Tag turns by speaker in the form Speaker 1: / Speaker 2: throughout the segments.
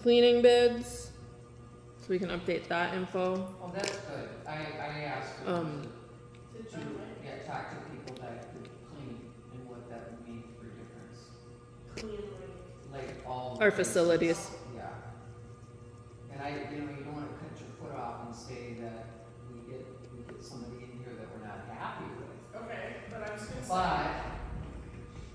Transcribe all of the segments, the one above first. Speaker 1: cleaning bids, so we can update that info.
Speaker 2: Well, that's good, I, I asked her
Speaker 1: Um,
Speaker 2: to, yeah, talk to people that could clean and what that would mean for difference, like all.
Speaker 1: Our
Speaker 2: places.
Speaker 1: facilities.
Speaker 2: Yeah. And I, you know, you don't wanna cut your foot off and say that we get, we get somebody in here that we're not happy with,
Speaker 3: Okay, but I was gonna say.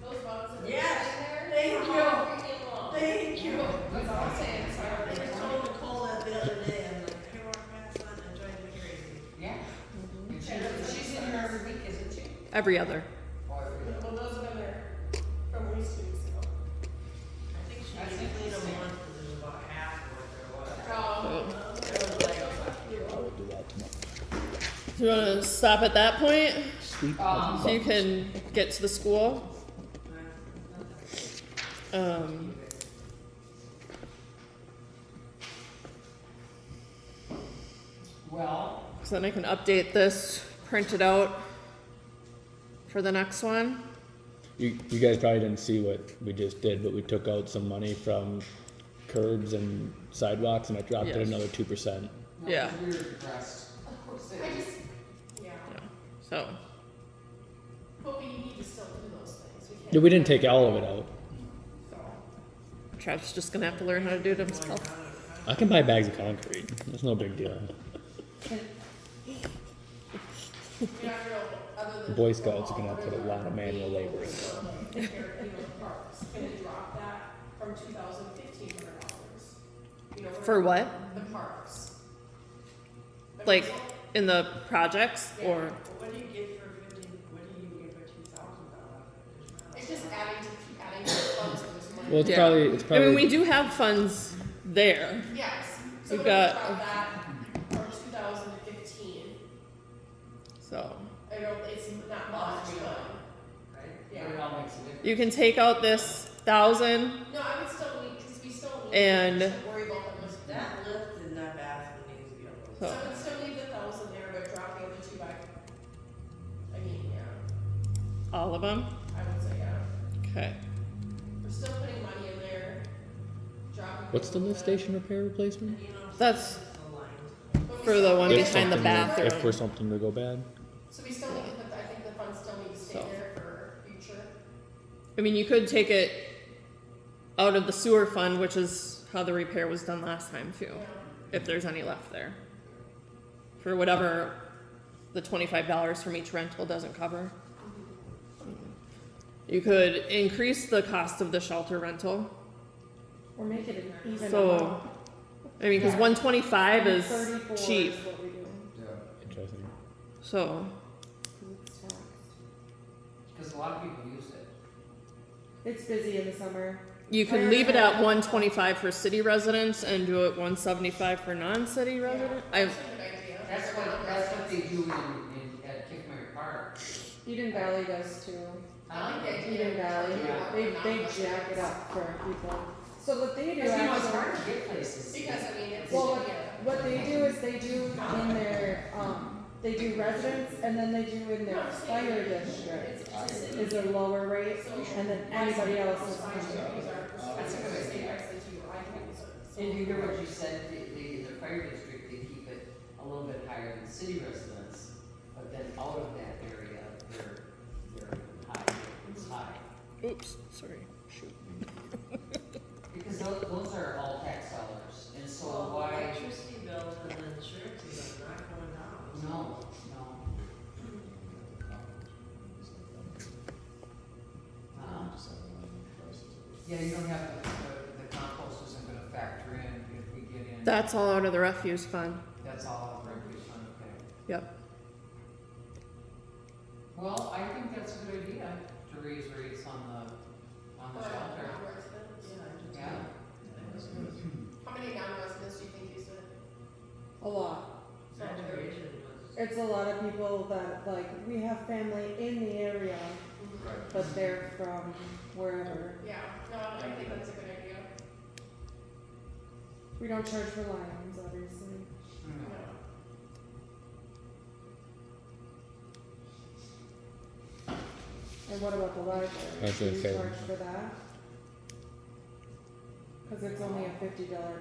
Speaker 2: but
Speaker 3: Those boxes.
Speaker 4: Yes,
Speaker 3: Thank
Speaker 4: thank
Speaker 3: you.
Speaker 4: you, thank you.
Speaker 2: That's all I'm saying,
Speaker 4: I told Nicole that the other day, I'm like, I walked past one and tried to carry it.
Speaker 2: Yeah. And she's, Mm-hmm. she's in here every week, isn't she?
Speaker 1: every other.
Speaker 2: Or every
Speaker 3: Well, those have been there from at least two weeks ago.
Speaker 4: I think she
Speaker 2: That's
Speaker 4: only cleaned
Speaker 2: interesting.
Speaker 4: them once, because there's about half of what there was.
Speaker 3: Um,
Speaker 1: Do you want to stop at that point
Speaker 5: Sweet
Speaker 2: Um,
Speaker 1: so you can get to the school? Um,
Speaker 2: Well,
Speaker 1: so then I can update this, print it out for the next one.
Speaker 5: You, you guys probably didn't see what we just did, but we took out some money from curbs and sidewalks and I dropped it
Speaker 1: Yes.
Speaker 5: another two percent.
Speaker 2: no,
Speaker 1: Yeah.
Speaker 2: we're depressed. Of course it is.
Speaker 3: yeah,
Speaker 1: So
Speaker 3: but we need to still do those things, we can't.
Speaker 5: Yeah, we didn't take all of it out.
Speaker 1: Travis just gonna have to learn how to do it himself.
Speaker 5: I can buy bags of concrete. That's no big deal.
Speaker 3: You're not real, other than.
Speaker 5: Boy Scouts are gonna put a lot of manual labor in.
Speaker 3: Gonna drop that from two thousand fifteen hundred dollars. You know,
Speaker 1: For what?
Speaker 3: The parks. The
Speaker 1: Like
Speaker 3: parks.
Speaker 1: in the projects or
Speaker 4: But What do you get for fifty, what do you get for two thousand dollars?
Speaker 3: It's just adding to, adding to the funds of this money.
Speaker 5: Well, it's
Speaker 1: Yeah.
Speaker 5: probably, it's
Speaker 1: I
Speaker 5: probably.
Speaker 1: mean we do have funds there.
Speaker 3: Yes,
Speaker 1: We've
Speaker 3: so when we
Speaker 1: got-
Speaker 3: dropped that from two thousand fifteen,
Speaker 1: So
Speaker 3: I know it's not much, but,
Speaker 2: Right?
Speaker 3: Yeah.
Speaker 2: But it all makes a difference.
Speaker 1: you can take out this thousand.
Speaker 3: no, I would still need, cause we still need
Speaker 1: And-
Speaker 3: to worry about the most of that.
Speaker 4: That lift in that bathroom needs to be
Speaker 1: So-
Speaker 4: upgraded.
Speaker 3: So I would still leave the thousand there, but drop the other two back. I mean, yeah,
Speaker 1: All of them.
Speaker 3: I would say, yeah,
Speaker 1: Okay.
Speaker 3: we're still putting money in there, dropping.
Speaker 5: What's the lift
Speaker 3: little
Speaker 5: station repair replacement?
Speaker 4: And you know,
Speaker 1: That's-
Speaker 4: sometimes the lines.
Speaker 3: bit, but we
Speaker 1: for the
Speaker 3: still-
Speaker 1: one
Speaker 5: If
Speaker 3: we
Speaker 1: behind
Speaker 3: still-
Speaker 1: the
Speaker 5: something-
Speaker 1: bathroom.
Speaker 5: If for something to go bad.
Speaker 3: So we still need to put, the- I think the funds still need to stay
Speaker 1: So.
Speaker 3: there for future,
Speaker 1: I mean, you could take it out of the sewer fund, which is how the repair was done last time too,
Speaker 3: you know,
Speaker 1: if there's any left there. For whatever the twenty-five dollars from each rental doesn't cover. You could increase the cost of the shelter rental,
Speaker 6: Or make it an even
Speaker 1: so, I mean, cause one twenty-five is cheap,
Speaker 2: Yeah.
Speaker 5: Interesting.
Speaker 1: so,
Speaker 2: Cause a lot of people use it.
Speaker 6: It's busy in the summer.
Speaker 1: you could leave it at one twenty-five for city residents and do it one seventy-five for non-city residents. I,
Speaker 3: that's a good idea.
Speaker 2: That's what, that's what they do in, in, at Kickmary Park.
Speaker 6: Eden Valley does too.
Speaker 2: I like that.
Speaker 6: Eden Valley,
Speaker 2: Yeah.
Speaker 6: they, they jack it up for people. So what they do
Speaker 2: Because you know, it's
Speaker 6: actually,
Speaker 2: hard to get places.
Speaker 3: Because, I mean, it's,
Speaker 6: Well, what-
Speaker 3: yeah.
Speaker 6: what they do is they do in their, um, they do residents and then they do in their fire district
Speaker 3: It's just a city.
Speaker 6: is a lower rate and then anybody else is
Speaker 3: These
Speaker 6: kind
Speaker 3: are-
Speaker 2: That's a good idea.
Speaker 3: And
Speaker 2: And you hear what you said, the, the, the fire district, they keep it a little bit higher than city residents, but then out of that area, they're, they're high, it's high.
Speaker 1: oops, sorry, shoot.
Speaker 2: Because those, those are all tax dollars, and so why,
Speaker 4: Electricity bills and insurance is not going down.
Speaker 2: no, no. Huh? Yeah, you don't have, the, the compost isn't gonna factor in if we get in,
Speaker 1: That's all out of the refuse fund.
Speaker 2: that's all of our refuse fund, okay.
Speaker 1: Yep.
Speaker 2: Well, I think that's a good idea, to raise rates on the, on the shelter, yeah.
Speaker 3: How many non-residents do you think use it?
Speaker 6: of, a lot.
Speaker 3: So there-
Speaker 4: Saturation was.
Speaker 6: It's a lot of people that like we have family in the area, but they're from wherever.
Speaker 3: Yeah, no, I think that's a good idea.
Speaker 6: We don't charge for lions, obviously.
Speaker 2: Hmm.
Speaker 6: And what about the library?
Speaker 5: I was
Speaker 6: Do
Speaker 5: gonna
Speaker 6: we
Speaker 5: say-
Speaker 6: charge for that? Because it's only a fifty dollar